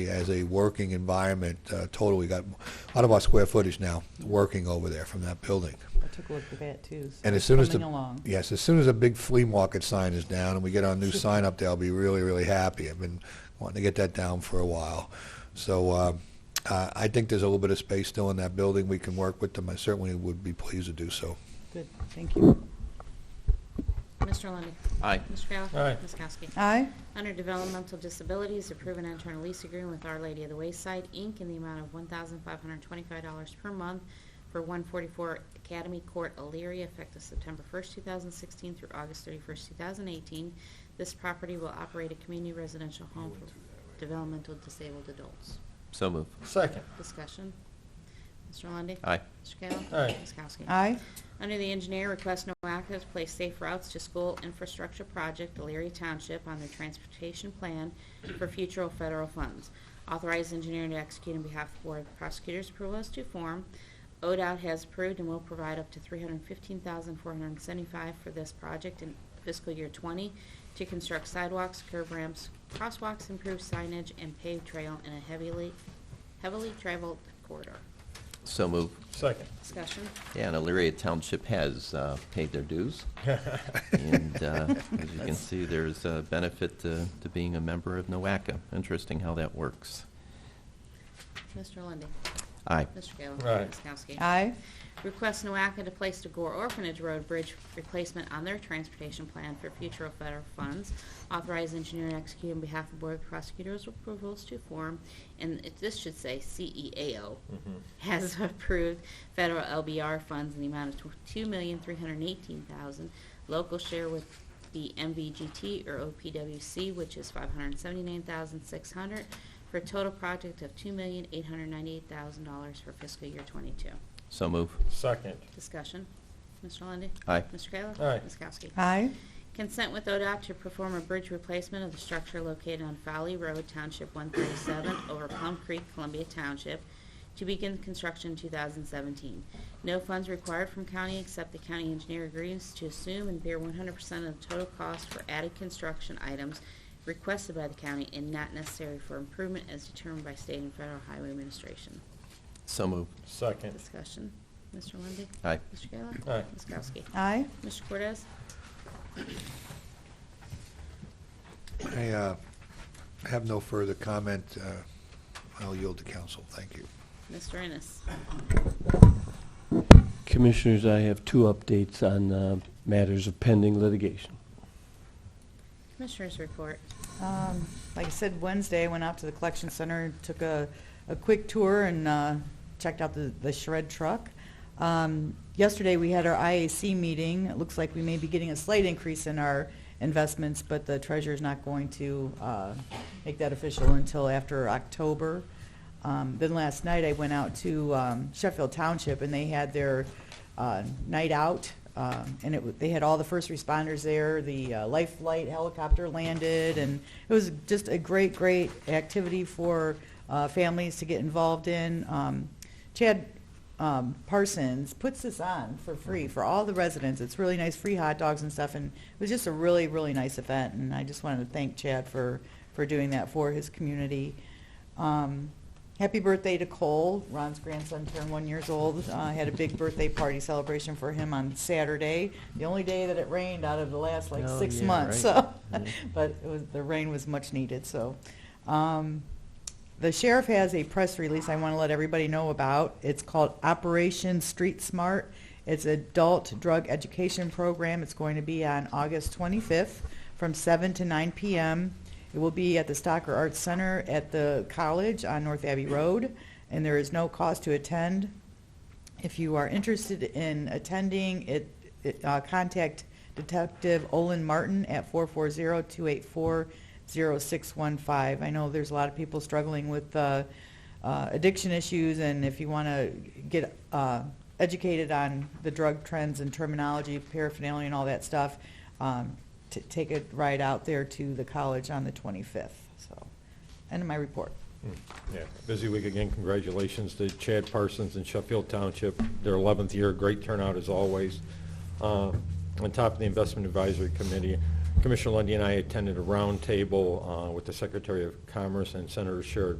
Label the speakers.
Speaker 1: as a working environment, uh, total, we got a lot of our square footage now working over there from that building.
Speaker 2: I took a look at that too. so
Speaker 1: And as
Speaker 2: it's
Speaker 1: soon as the-
Speaker 2: Coming along.
Speaker 1: Yes, as soon as a big flea market sign is down and we get our new sign up there, I'll be really, really happy. I've been wanting to get that down for a while. So uh, uh, I think there's a little bit of space still in that building. We can work with them. I certainly would be pleased to do so.
Speaker 2: Good, thank you.
Speaker 3: Mr. Lundy,
Speaker 4: Aye.
Speaker 3: Mr. Kayla.
Speaker 5: Aye.
Speaker 3: Ms. Kowski.
Speaker 2: Aye,
Speaker 3: Under Developmental Disabilities, approve an internal lease agreement with Our Lady of the Wayside, Inc. in the amount of $1,525 per month for 144 Academy Court, Elyria, effective September 1st, 2016 through August 31st, 2018. This property will operate a community residential home for developmental disabled adults.
Speaker 4: So move.
Speaker 5: Second.
Speaker 3: Discussion. Mr. Lundy,
Speaker 4: Aye.
Speaker 3: Mr. Kayla.
Speaker 5: Aye.
Speaker 3: Ms. Kowski.
Speaker 2: aye,
Speaker 3: Under the engineer, request no action to place safe routes to school infrastructure project, Elyria Township, on their transportation plan for future federal funds. Authorize engineer to execute on behalf of the Board of Prosecutors' approval as to form. ODOT has approved and will provide up to $315,475 for this project in fiscal year '20 to construct sidewalks, curb ramps, crosswalks, improve signage, and paved trail in a heavily, heavily traveled corridor.
Speaker 4: So move.
Speaker 5: Second.
Speaker 3: Discussion?
Speaker 4: Yeah, and Elyria Township has uh, paid their dues. And uh, as you can see, there's a benefit to to being a member of NOACA. Interesting how that works.
Speaker 3: Mr. Lundey.
Speaker 4: Aye.
Speaker 3: Mr. Kayla.
Speaker 5: Aye.
Speaker 3: Ms. Kowski.
Speaker 2: aye,
Speaker 3: Request NOACA to place the Gore Orphanage Road Bridge replacement on their transportation plan for future federal funds. Authorize engineer to execute on behalf of Board of Prosecutors approvals to form, and it- this should say CEAO, has approved federal LBR funds in the amount of tw- $2,318,000. Local share with the MVGT or OPWC, which is $579,600, for a total project of $2,898,000 for fiscal year '22.
Speaker 4: So move.
Speaker 5: Second.
Speaker 3: Discussion. Mr. Lundy.
Speaker 4: Aye.
Speaker 3: Mr. Kayla?
Speaker 5: Aye.
Speaker 3: Ms. Kowski?
Speaker 2: aye,
Speaker 3: Consent with ODOT to perform a bridge replacement of the structure located on Fowley Road, Township 137, over Plum Creek, Columbia Township, to begin construction in 2017. No funds required from county except the county engineer agrees to assume and bear 100% of the total cost for added construction items requested by the county and not necessary for improvement as determined by state and federal highway administration.
Speaker 4: So move.
Speaker 5: Second.
Speaker 3: Discussion. Mr. Lundy.
Speaker 4: Aye.
Speaker 3: Mr. Kayla?
Speaker 5: Aye.
Speaker 3: Ms. Kowski?
Speaker 2: aye,
Speaker 3: Mr. Cortez?
Speaker 1: I uh, have no further comment. Uh, I'll yield to council. Thank you.
Speaker 3: Mr. Ennis?
Speaker 6: Commissioners, I have two updates on uh, matters of pending litigation.
Speaker 3: Commissioners report.
Speaker 2: Um, Like I said, Wednesday, I went out to the collection center, took a, a quick tour and uh, checked out the, the shred truck. Um, Yesterday, we had our IAC meeting. It looks like we may be getting a slight increase in our investments, but the treasurer's not going to uh, make that official until after October. Um, Then last night, I went out to um, Sheffield Township, and they had their uh, night out, um, and it, wa- they had all the first responders there. The uh, life flight helicopter landed, and it was just a great, great activity for uh, families to get involved in. Um, Chad um, Parsons puts this on for free for all the residents. It's really nice, free hot dogs and stuff, and it was just a really, really nice event. And I just wanted to thank Chad for for doing that for his community. Um, happy birthday to Cole. Ron's grandson turned one years old. Uh, had a big birthday party celebration for him on Saturday, the only day that it rained out of the last like
Speaker 6: Oh,
Speaker 2: six
Speaker 6: yeah,
Speaker 2: months.
Speaker 6: right.
Speaker 2: So,
Speaker 6: Mhm.
Speaker 2: but it was, the rain was much needed. So. Um, the sheriff has a press release I want to let everybody know about. It's called Operation Street Smart. It's adult drug education program. It's going to be on August 25th from 7 to 9 p.m. It will be at the Stocker Arts Center at the college on North Abbey Road, and there is no cost to attend. If you are interested in attending, it, it, uh, contact Detective Olin Martin at 440-284-0615. I know there's a lot of people struggling with, uh, uh, addiction issues, and if you want to get, uh, educated on the drug trends and terminology, paraphernalia and all that stuff, um, t- take a ride out there to the college on the 25th, so. End of my report.
Speaker 5: Hmm. Yeah, busy week again. Congratulations to Chad Parsons and Sheffield Township, their 11th year. Great turnout as always. Uh, On top of the Investment Advisory Committee, Commissioner Lundy and I attended a roundtable uh, with the Secretary of Commerce and Senator Sherrod